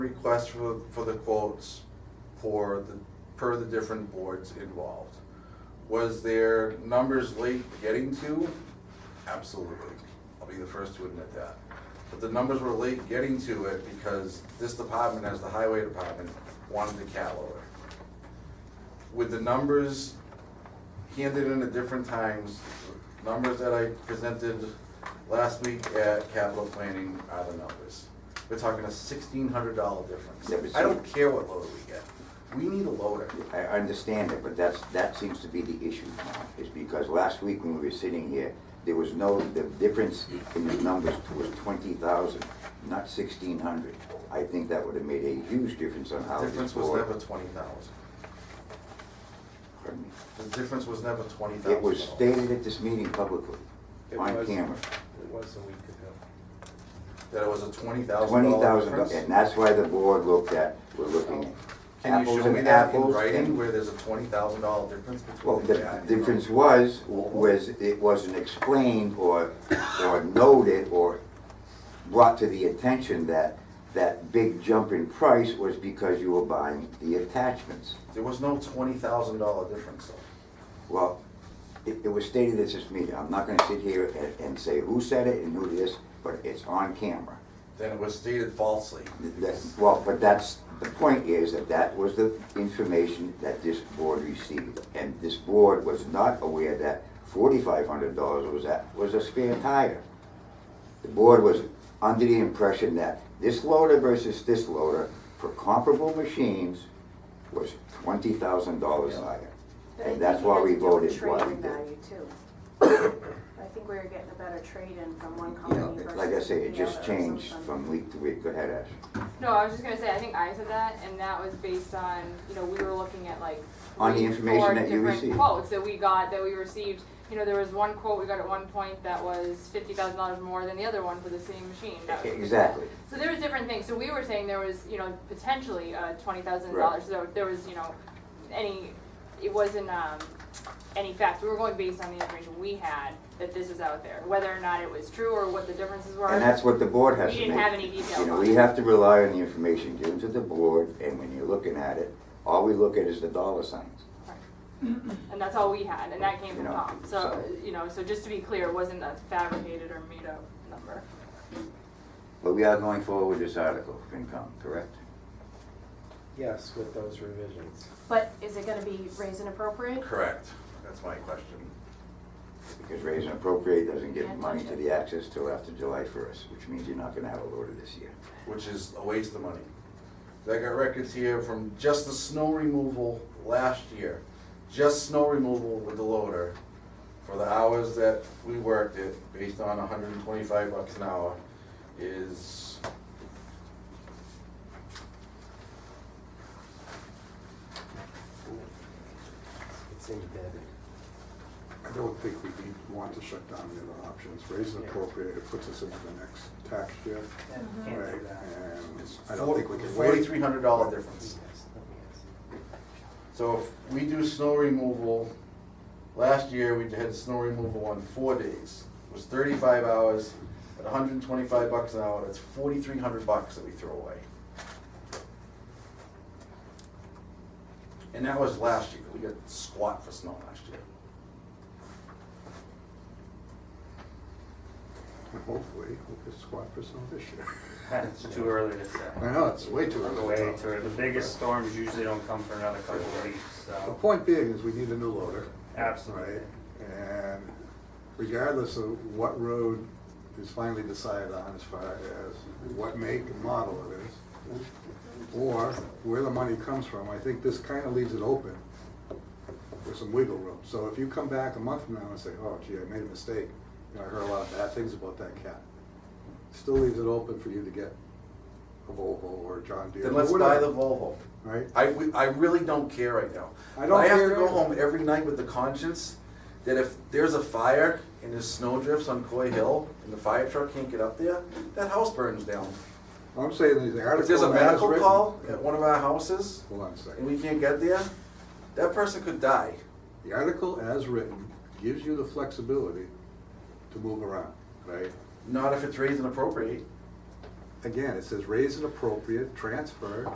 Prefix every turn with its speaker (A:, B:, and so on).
A: request for, for the quotes for the, per the different boards involved. Was there numbers late getting to? Absolutely. I'll be the first to admit that. But the numbers were late getting to it because this department, as the highway department, wanted the cat loader. With the numbers handed in at different times, numbers that I presented last week at capital planning are the numbers. We're talking a sixteen hundred dollar
B: Yeah, but
A: difference.
B: see-
A: I don't care what loader we get, we need a loader.
B: I I understand it, but that's, that seems to be the issue now, is because last week when we were sitting here, there was no, the difference in the numbers was twenty thousand, not sixteen hundred. I think that would have made a huge difference on how this
A: Difference was
B: board.
A: never twenty thousand.
B: Pardon me.
A: The difference was never twenty thousand.
B: It was stated at this meeting publicly,
C: It
B: on
C: was-
B: camera,
C: It was a week ago.
A: That it was a twenty thousand
B: twenty
A: dollar
B: thousand,
A: difference?
B: and that's why the board looked at, we're looking at
A: Can you
B: apples
A: show me
B: and
A: that in
B: apples
A: writing
B: and
A: where there's a twenty thousand dollar difference
B: Well,
A: between?
B: the
A: that?
B: difference was, was it wasn't explained or, or noted or brought to the attention that that big jump in price was because you were buying the attachments.
A: There was no twenty thousand dollar difference though.
B: Well, it, it was stated at this meeting, I'm not gonna sit here and, and say who said it and who this, but it's on camera.
A: Then it was stated falsely.
B: That- well, but that's, the point is that that was the information that this board received. And this board was not aware that forty-five hundred dollars was that, was a spare tire. The board was under the impression that this loader versus this loader for comparable machines was twenty thousand dollars higher.
D: But I
B: And that's
D: think you
B: why
D: had
B: we
D: to do a
B: voted why we
D: trade-in
B: did.
D: value, too. I think we were getting a better trade-in from one
B: You know,
D: company versus the other.
B: like I say, it just
D: or
B: changed
D: something.
B: from week to week. Go ahead, Ash.
E: No, I was just gonna say, I think I said that, and that was based on, you know, we were looking at like.
B: On the
E: three,
B: information
E: four
B: that you
E: different
B: received.
E: Quotes that we got, that we received, you know, there was one quote we got at one point that was fifty thousand dollars more than the other one for the same machine. That was-
B: Exactly.
E: So there was different things, so we were saying there was, you know, potentially, uh, twenty thousand
B: Right.
E: dollars, so there was, you know, any, it wasn't, um, any facts, we were going based on the information we had, that this is out there, whether or not it was true or what the differences were.
B: And that's what the board has
E: We
B: to make.
E: didn't have any details
B: You know,
E: on
B: we
E: it.
B: have to rely on the information given to the board, and when you're looking at it, all we look at is the dollar signs.
E: And that's all we had, and that came
B: You
E: from
B: know,
E: Tom. So,
B: so-
E: you know, so just to be clear, it wasn't a fabricated or made up number.
B: But we are going forward with this article, FinCom, correct?
C: Yes, with those revisions.
D: But is it gonna be raise and appropriate?
A: Correct. That's my question.
B: Because raise and appropriate doesn't give
D: Can't
B: money
D: touch
B: to
D: it.
B: the access till after July first, which means you're not gonna have a loader this year.
A: which is a waste of money. I got records here from just the snow removal last year, just snow removal with the loader for the hours that we worked it, based on hundred and twenty-five bucks an hour, is
C: It's embedded.
F: I don't think we need, want to shut down the other options. Raise and appropriate, it puts us into the next tax year.
C: Can't do
F: Right,
C: that.
F: and I don't think we can wait.
A: forty-three hundred dollar difference.
C: Yes, let me ask.
A: So if we do snow removal, last year we had snow removal on four days. It was thirty-five hours at hundred and twenty-five bucks an hour, that's forty-three hundred bucks that we throw away. And that was last year, we got squat for snow last year.
F: And Hopefully, we'll get squat for some this year.
G: It's too early to say.
F: I know, it's way too
G: We're
F: early.
G: Way
F: to
G: too early. The biggest storms usually don't come for another couple of weeks,
F: The
G: so.
F: point being is we need a new loader.
G: Absolutely.
F: Right? And regardless of what road is finally decided on as far as what make and model it is, or where the money comes from, I think this kind of leaves it open with some wiggle room. So if you come back a month from now and say, oh gee, I made a mistake, you know, I heard a lot of bad things about that cat, still leaves it open for you to get a Volvo or a John Deere.
A: Then
F: or
A: let's buy the
F: whatever,
A: Volvo.
F: Right?
A: I, we- I really don't care right now.
F: I don't
A: have to
F: care
A: go
F: either.
A: home every night with the conscience that if there's a fire and there's snow drifts on Coy Hill and the fire truck can't get up there, that house burns down.
F: I'm saying that the article.
A: If there's a
F: as
A: medical
F: written-
A: call at one of our houses
F: Hold on a
A: and
F: second.
A: we can't get there, that person could die.
F: The article as written gives you the flexibility to move around, right?
A: Not if it's raised and appropriate.
F: again, it says raise an appropriate, transfer,